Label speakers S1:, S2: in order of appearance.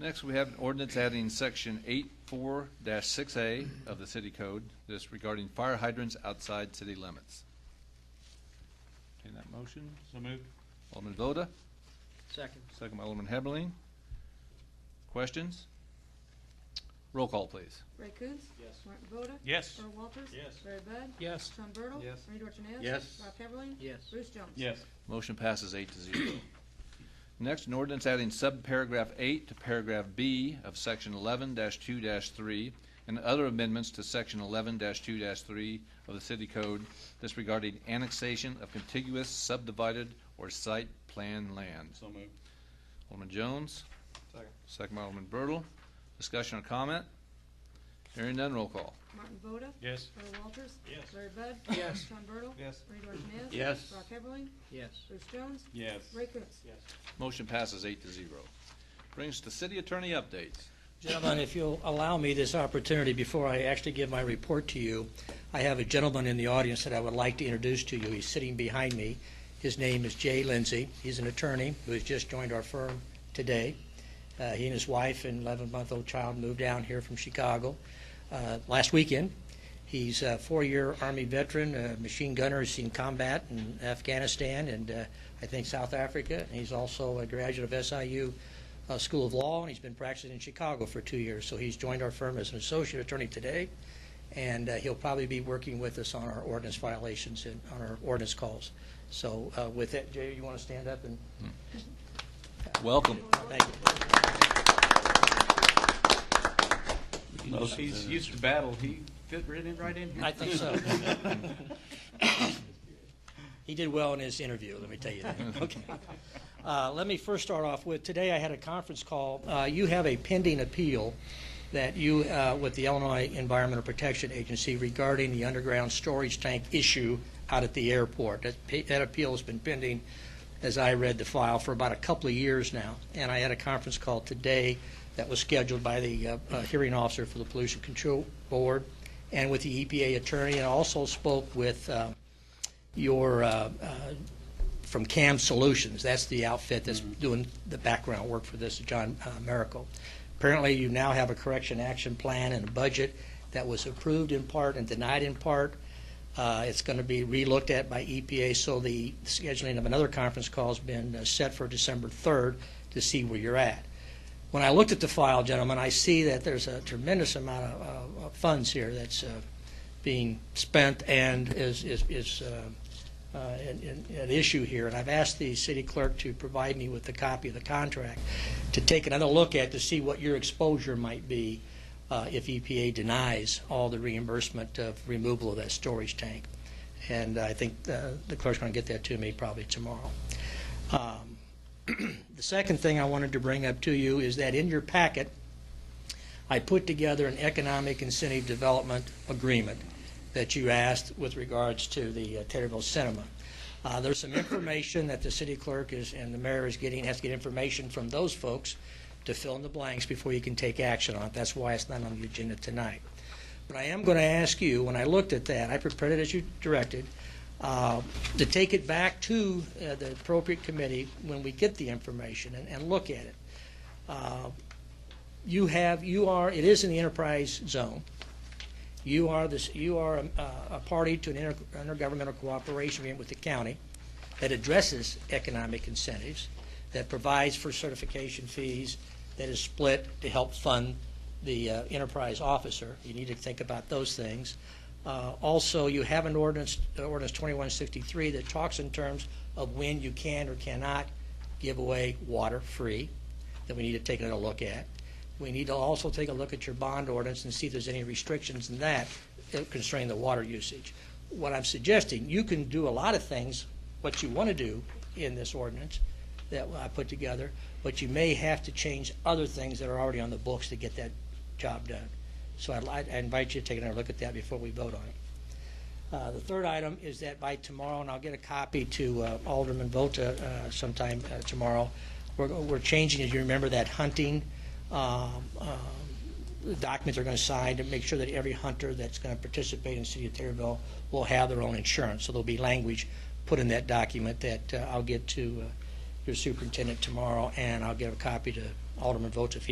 S1: Next, we have an ordinance adding section eight four six A of the city code, this regarding fire hydrants outside city limits. Entertain that motion,
S2: So moved.
S1: Alderman Voda,
S3: Second.
S1: second by Alderman Heberlin. Questions? Roll call, please.
S4: Ray Coons.
S3: Yes.
S4: Martin Voda.
S2: Yes.
S4: Earl Walters.
S2: Yes.
S4: Larry Bud.
S3: Yes.
S4: Sean Bertle.
S2: Yes.
S4: Bernie Dorchenez.
S2: Yes.
S4: Rob Heberlin.
S3: Yes.
S4: Bruce Jones.
S2: Yes.
S1: Motion passes eight to zero. Next, an ordinance adding subparagraph eight to paragraph B of section eleven two three and other amendments to section eleven two three of the city code disregarding annexation of contiguous subdivided or site plan land.
S2: So moved.
S1: Alderman Jones?
S2: Second.
S1: Second by Alderman Bertle. Discussion or comment? Hearing none, roll call.
S4: Martin Voda.
S2: Yes.
S4: Earl Walters.
S2: Yes.
S4: Larry Bud.
S3: Yes.
S4: Sean Bertle.
S2: Yes.
S4: Bernie Dorchenez.
S2: Yes.
S4: Rob Heberlin.
S3: Yes.
S4: Bruce Jones.
S2: Yes.
S4: Ray Coons.
S2: Yes.
S1: Motion passes eight to zero. Brings the city attorney updates.
S5: Gentlemen, if you'll allow me this opportunity before I actually give my report to you, I have a gentleman in the audience that I would like to introduce to you. He's sitting behind me. His name is Jay Lindsay. He's an attorney who has just joined our firm today. Uh, he and his wife and 11-month-old child moved down here from Chicago uh, last weekend. He's a four-year Army veteran, a machine gunner, He's seen combat in Afghanistan and uh, I think South Africa. And he's also a graduate of SIU uh, School of Law, and he's been practicing in Chicago for two years. So he's joined our firm as an associate attorney today, and uh, he'll probably be working with us on our ordinance violations and on our ordinance calls. So uh, with that, Jay, you want to stand up and
S1: Welcome.
S5: thank you.
S2: He's used to battle. He fit right in, right in.
S5: I think so. He did well in his interview, let me tell you that. Okay. Uh, Let me first start off with, today I had a conference call. Uh, You have a pending appeal that you, uh, with the Illinois Environmental Protection Agency regarding the underground storage tank issue out at the airport. That pe- That appeal has been pending, as I read the file, for about a couple of years now. And I had a conference call today that was scheduled by the uh, uh, hearing officer for the Pollution Control Board and with the EPA attorney, and also spoke with uh, your, uh, uh, from CAM Solutions. That's the outfit that's doing the background work for this, John uh, Miracle. Apparently, you now have a correction action plan and a budget that was approved in part and denied in part. Uh, It's going to be relooked at by EPA, so the scheduling of another conference call has been uh, set for December 3rd to see where you're at. When I looked at the file, gentlemen, I see that there's a tremendous amount of uh, of funds here that's uh, being spent and is, is, is uh, uh, an, an- an issue here. And I've asked the city clerk to provide me with a copy of the contract to take another look at to see what your exposure might be uh, if EPA denies all the reimbursement of removal of that storage tank. And I think uh, the clerk's going to get that to me probably tomorrow. Um, The second thing I wanted to bring up to you is that in your packet, I put together an economic incentive development agreement that you asked with regards to the uh, Taterville Cinema. Uh, There's some information that the city clerk is, and the mayor is getting, has to get information from those folks to fill in the blanks before you can take action on it. That's why it's not on the agenda tonight. But I am going to ask you, when I looked at that, I prepared it as you directed, uh, to take it back to uh, the appropriate committee when we get the information and, and look at it. Uh, You have, you are, it is in the enterprise zone. You are this, you are a, a party to an inter- intergovernmental cooperation agreement with the county that addresses economic incentives, that provides for certification fees, that is split to help fund the uh, enterprise officer. You need to think about those things. Uh, Also, you have an ordinance, uh, ordinance 2163, that talks in terms of when you can or cannot give away water free, that we need to take a look at. We need to also take a look at your bond ordinance and see if there's any restrictions in that that constrain the water usage. What I'm suggesting, you can do a lot of things, what you want to do in this ordinance that I put together, but you may have to change other things that are already on the books to get that job done. So I'd like, I invite you to take another look at that before we vote on it. Uh, The third item is that by tomorrow, and I'll get a copy to uh, Alderman Vota uh, sometime uh, tomorrow, we're we're changing, as you remember, that hunting um, um, documents are going to sign to make sure that every hunter that's going to participate in the city of Taylorville will have their own insurance. So there'll be language put in that document that uh, I'll get to uh, your superintendent tomorrow, and I'll give a copy to Alderman Vota if he